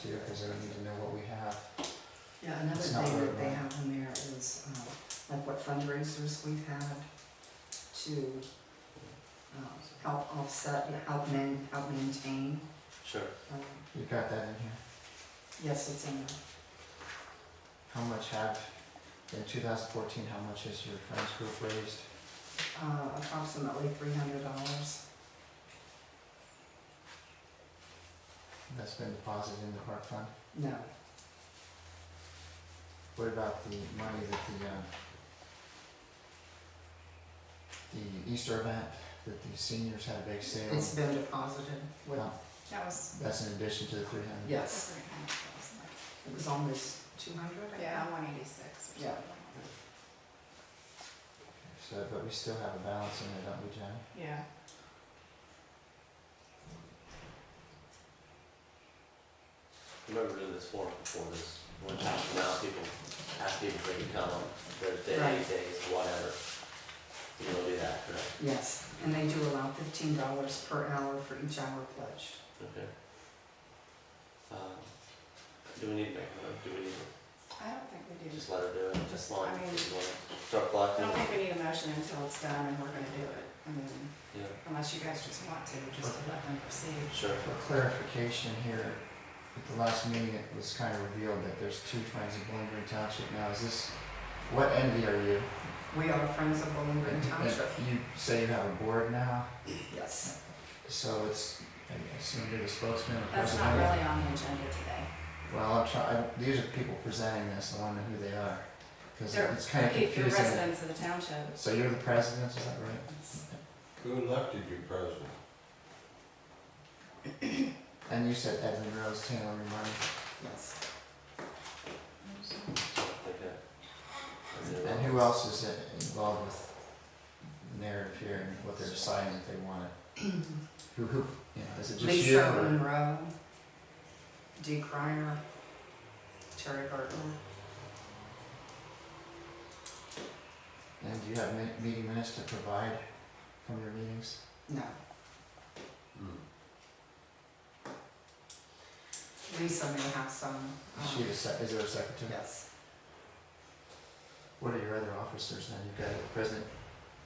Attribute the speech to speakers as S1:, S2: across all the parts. S1: too, because I would need to know what we have.
S2: Yeah, another
S1: It's not
S2: thing
S1: very
S2: that they
S1: much.
S2: have in there is, um, like what fundraisers we've had to, um, help offset, help man, help maintain.
S3: Sure.
S2: Um,
S1: You've got that in here.
S2: Yes, it's in there.
S1: How much have, in two thousand fourteen, how much has your friends group raised?
S2: Uh, approximately three hundred dollars.
S1: That's been deposited in the park fund?
S2: No,
S1: What about the money that the, um, the Easter event, that the seniors had a big sale?
S2: it's been deposited with,
S1: Oh,
S4: That was
S1: That's in addition to the three hundred?
S2: yes,
S4: three hundred thousand.
S2: it was almost two hundred, I think.
S4: Yeah, one eighty-six or something
S2: Yeah.
S4: like that.
S1: So, but we still have a balance in there, don't we, Jen?
S4: Yeah.
S3: Remember doing this forum before this, one time from now, people ask people if they can come on Thursday,
S2: Right.
S3: eight days, whatever. You will do that, correct?
S2: Yes, and they do allow fifteen dollars per hour for each hour pledged.
S3: Okay. Um, Do we need to make a note, do we need
S4: I don't think we
S3: to
S4: do,
S3: just let her do it, just line,
S4: I mean-
S3: if you wanna start
S4: I
S3: collecting?
S4: don't think we need a motion until it's done and we're gonna do it. I mean,
S3: Yeah,
S4: unless you guys just want to, just to let them proceed.
S3: sure.
S1: For clarification here, at the last meeting, it was kind of revealed that there's two friends of Bowling Green Township now. Is this, what entity are you?
S2: We are Friends of Bowling Green
S1: And- and
S2: Township,
S1: You say you have a board now,
S2: yes.
S1: so it's, I assume you're the spokesman or
S4: That's not
S1: president?
S4: really on the agenda today.
S1: Well, I'm trying, these are people presenting this, I wonder who they are, because
S4: They're-
S1: it's kind of
S4: If you're
S1: confusing.
S4: residents of the township,
S1: So you're the president, is that right?
S4: it's-
S5: Who elected you president?
S1: And you said Edwin Rose, Taylor, your money.
S2: Yes.
S3: So I think that- is it
S1: And who else is uh, involved with the narrative here and what they're deciding that they want to, who, who, you know, is it just you?
S2: Lisa
S1: or-
S2: Monroe, Dee Cryer, Terry Burton.
S1: And do you have min- meeting minutes to provide from your meetings?
S2: No,
S3: Hmm.
S2: Lisa may have some.
S1: Is
S2: um,
S1: she the sec, is there a secretary?
S2: Yes,
S1: What are your other officers then? You've got the president,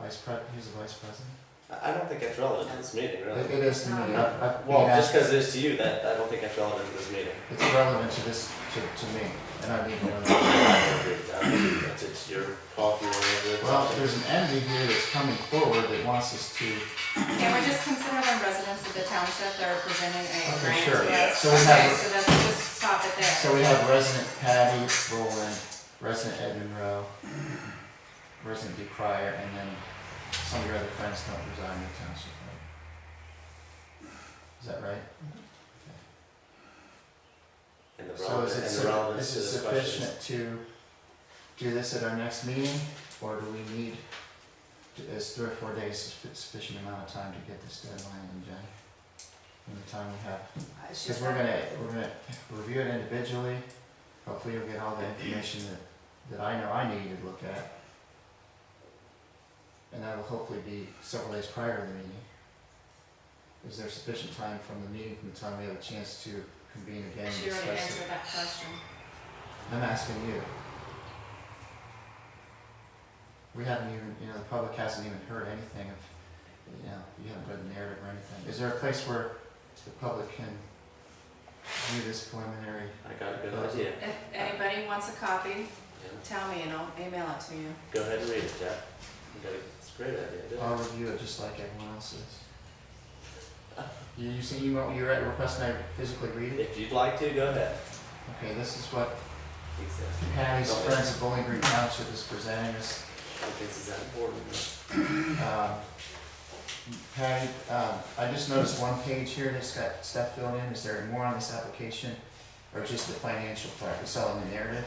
S1: vice pre, who's the vice president? Uh,
S3: I, I don't think that's relevant to this meeting,
S1: It
S3: really.
S1: it is to me,
S4: Um,
S1: I've, I've been
S3: Uh, Well, just
S1: asked,
S3: because it is to you, that, I don't think that's relevant to this meeting.
S1: it's relevant to this, to, to me, and I need to know. that.
S3: That's it's your coffee or whatever.
S1: Well, there's an entity here that's coming forward that wants us to,
S4: Can we just consider them residents of the township, they're presenting a
S1: Okay,
S4: grant
S1: sure.
S4: to us?
S1: So we have-
S4: Okay, so that's, just stop it there.
S1: so we have resident Patty Boland, resident Ed Monroe, resident Dee Cryer, and then some of your other friends don't reside in the township, right? Is that right?
S3: And the
S1: So is it,
S3: relevance, and the
S1: suffi-
S3: relevance
S1: is
S3: to
S1: it
S3: the questions.
S1: sufficient to do this at our next meeting, or do we need, is three or four days suffi- sufficient amount of time to get this deadline in, Jenny? In the time we have?
S4: Uh, she's
S1: Because we're gonna, we're gonna review it individually, hopefully you'll get all the information that, that I know I need to look at. And that'll hopefully be several days prior to the meeting. Is there sufficient time from the meeting, from the time we have a chance to convene again and
S4: She already
S1: discuss it?
S4: answered that question.
S1: I'm asking you. We haven't even, you know, the public hasn't even heard anything of, you know, you haven't read the narrative or anything. Is there a place where the public can view this preliminary
S3: I got a good idea.
S4: If anybody wants a copy,
S3: Yeah.
S4: tell me and I'll email it to you.
S3: Go ahead and read it, Jack. You got a, it's a great idea, do it.
S1: I'll review it just like everyone else's. You, you see, you want, you're at request and I physically read it?
S3: If you'd like to, go ahead.
S1: Okay, this is what
S3: He says,
S1: Patty's Friends of Bowling Green Township is presenting us.
S3: I think this is that important. huh?
S1: Um, Patty, um, I just noticed one page here that's got stuff filled in. Is there more on this application? Or just the financial part, it's all in the narrative?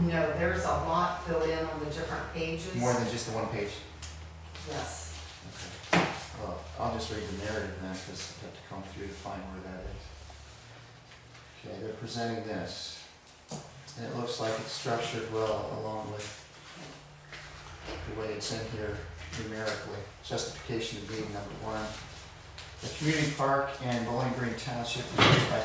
S2: no, there's a lot filled in on the different pages.
S1: More than just the one page?
S2: Yes,
S1: Okay. Well, I'll just read the narrative then, because I have to come through to find where that is. Okay, they're presenting this, and it looks like it's structured well along with the way it's in here numerically. Justification of being number one. The community park and Bowling Green Township is used by